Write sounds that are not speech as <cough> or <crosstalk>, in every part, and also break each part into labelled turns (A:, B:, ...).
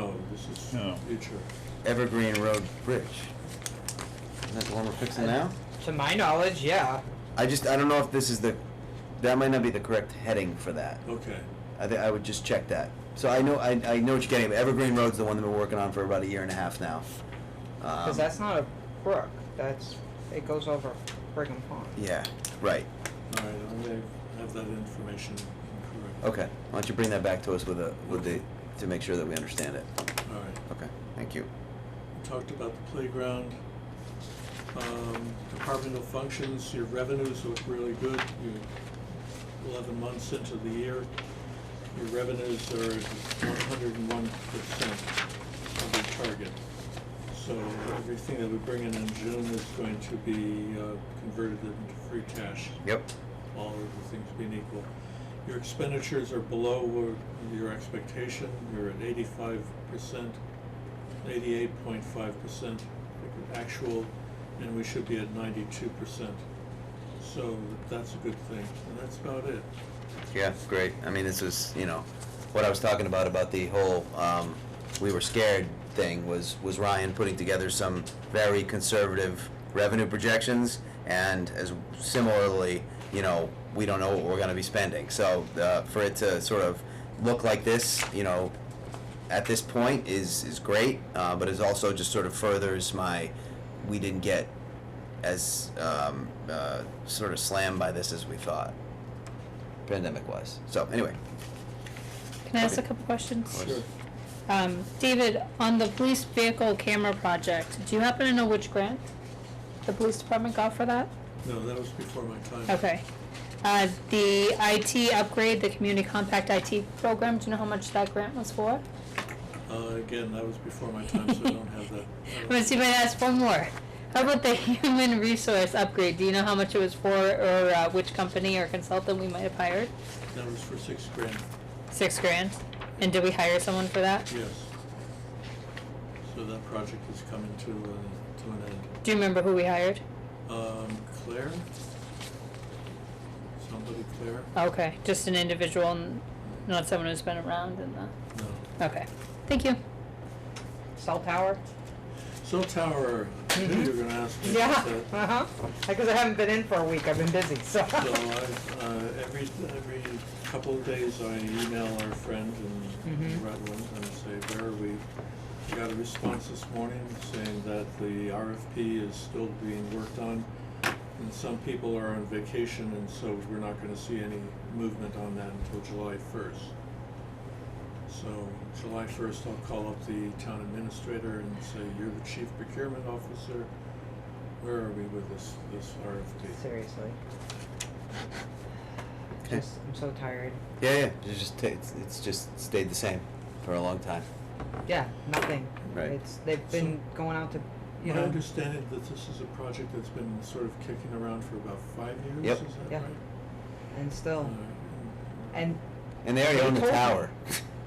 A: No.
B: Oh, future.
C: Evergreen Road Bridge. Isn't that the one we're fixing now?
D: To my knowledge, yeah.
C: I just, I don't know if this is the, that might not be the correct heading for that.
B: Okay,
C: I think I would just check that. So I know, I, I know what you're getting, at. Evergreen Road's the one that we're working on for about a year and a half now.
D: Because
C: Um,
D: that's not a brook. That's it goes over Brigham Pond.
C: Yeah, right,
B: all right, I may have that information incorrect.
C: okay. Why don't you bring that back to us with a, with the, to make sure that we understand it.
B: All right,
C: Okay, thank you.
B: we talked about the playground. Um, departmental functions, your revenues look really good. You're eleven months into the year. Your revenues are one hundred and one percent of your target. So everything that we bring in in June is going to be uh, converted into free cash.
C: Yep,
B: all of the things being equal. Your expenditures are below where- your expectation, you're at eighty-five percent, eighty-eight point five percent actual, and we should be at ninety-two percent. So that's a good thing, and that's about it.
C: yeah, great. I mean, this was, you know, what I was talking about, about the whole, um, we were scared thing was, was Ryan putting together some very conservative revenue projections and as similarly, you know, we don't know what we're gonna be spending. So, uh, for it to sort of look like this, you know, at this point is is great, uh, but it also just sort of furthers my we didn't get as um, uh, sort of slammed by this as we thought, pandemic wise. So anyway,
E: Can I ask a
C: Okay.
E: couple questions?
C: Sure.
E: Um, David, on the police vehicle camera project, do you happen to know which grant the police department got for that?
B: No, that was before my time.
E: Okay. Uh, the IT upgrade, the community compact IT program, do you know how much that grant was for?
B: Uh, again, that was before my time, so I don't have
E: <laughs>
B: that. I
E: I'm
B: don't-
E: gonna see if I can ask one more. How about the <laughs> human resource upgrade? Do you know how much it was for or uh, which company or consultant we might have hired?
B: That was for six grand,
E: Six grand. And did we hire someone for that?
B: yes. So that project is coming to, uh, to an end.
E: Do you remember who we hired?
B: Um, Claire? Somebody Claire?
E: Okay, just an individual, n- not someone who's been around in the,
B: No.
E: okay, thank you.
D: Cell tower.
B: Cell tower, I knew you were gonna ask me
D: Yeah.
B: about
D: <laughs>
B: that.
D: Uh huh. Because I haven't been in for a week. I've been busy.
C: <laughs>
B: So
D: So.
B: I, uh, every, every couple of days I email our friend in
D: Mhm.
B: Rutland and say, where are we? I got a response this morning saying that the RFP is still being worked on. And some people are on vacation and so we're not gonna see any movement on that until July first. So July first, I'll call up the town administrator and say, you're the chief procurement officer. Where are we with this, this RFP?
D: Seriously.
C: Okay.
D: Just, I'm so tired.
C: yeah, yeah, it's just ta- it's, it's just stayed the same for a long time.
D: Yeah. Nothing.
C: Right.
D: It's they've been going out to, you
B: My
D: know.
B: understanding that this is a project that's been sort of kicking around for about five years,
C: Yep.
B: is that
D: Yeah.
B: right?
D: and
B: Uh,
D: still.
C: Mm-hmm.
D: And
C: And they already
D: They
C: own the
D: told me.
C: tower.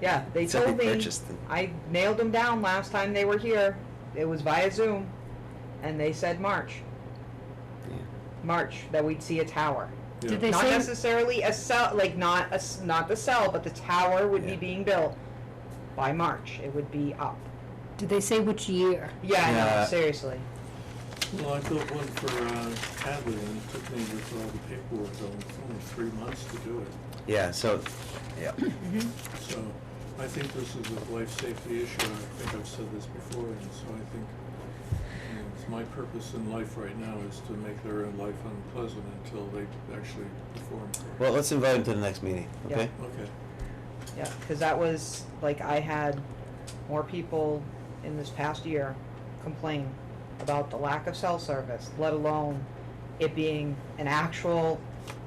D: yeah, they
C: So they
D: told me.
C: purchased them.
D: I nailed them down last time they were here. It was via Zoom, and they said March,
C: Yeah.
D: March that we'd see a tower.
B: yeah.
E: Did they
D: not
E: say-
D: necessarily a cell, like not a s not the cell, but the tower would
C: Yeah.
D: be being built by March. It would be up.
E: Did they say which year?
D: Yeah, I
C: Yeah.
D: know, seriously.
B: Well, I built one for, uh, Hadley and it took me with all the paperwork, only three months to do it.
C: Yeah. So, yeah.
B: So I think this is a life safety issue. I think I've said this before, and so I think you know, it's my purpose in life right now is to make their life unpleasant until they actually perform. for it.
C: Well, let's invite him to the next meeting.
D: Yeah.
C: Okay.
B: Okay.
D: Yeah, because that was, like, I had more people in this past year complain about the lack of cell service, let alone it being an actual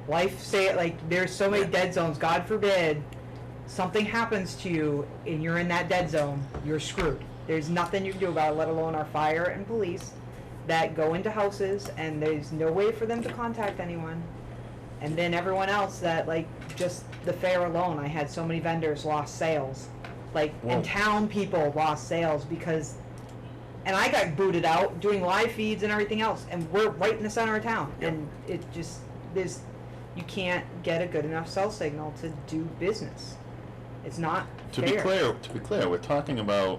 D: life say, like, there's so many
C: Yeah.
D: dead zones, God forbid, something happens to you and you're in that dead zone, you're screwed. There's nothing you can do about it, let alone our fire and police that go into houses and there's no way for them to contact anyone. And then everyone else that like just the fair alone, I had so many vendors lost sales, like
C: Whoa.
D: and town people lost sales because, and I got booted out doing live feeds and everything else, and we're right in the center of town, and it just there's, you can't get a good enough cell signal to do business. It's not
A: To
D: fair.
A: be clear, to be clear, we're talking about